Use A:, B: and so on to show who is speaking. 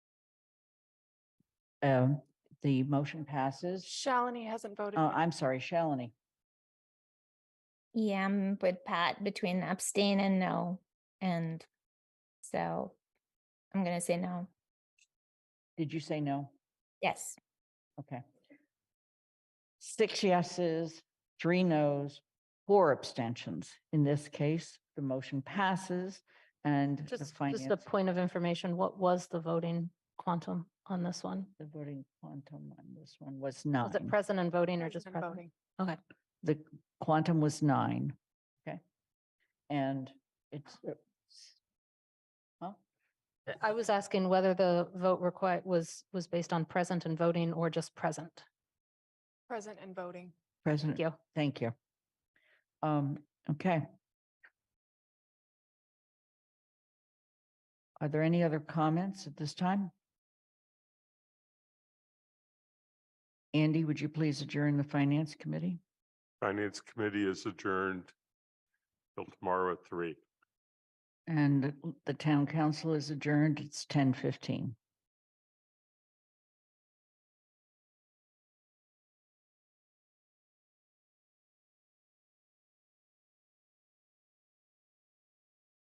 A: Um, the motion passes.
B: Shalini hasn't voted.
A: Uh,
B: yet.
A: I'm sorry, Shalini.
C: Yeah, I'm with Pat between abstain and no. And so I'm going to say no.
A: Did you say no?
C: Yes.
A: Okay. Six yeses, three nos, four abstentions. In this case, the motion passes and the
D: Just, just a
A: finance,
D: point of information, what was the voting quantum on this one?
A: the voting quantum on this one was
D: Was it
A: nine.
D: present and voting or just
B: Hasn't been
D: present?
B: voting.
D: Okay,
A: The quantum was nine. Okay. And it's, uh, s-
D: Uh, I was asking whether the vote required was, was based on present and voting or just present.
B: Present and voting.
A: President.
D: Thank you.
A: Thank you. Um, okay. Are there any other comments at this time? Andy, would you please adjourn the finance committee?
E: Finance Committee is adjourned till tomorrow at three.
A: And the town council is adjourned. It's ten fifteen.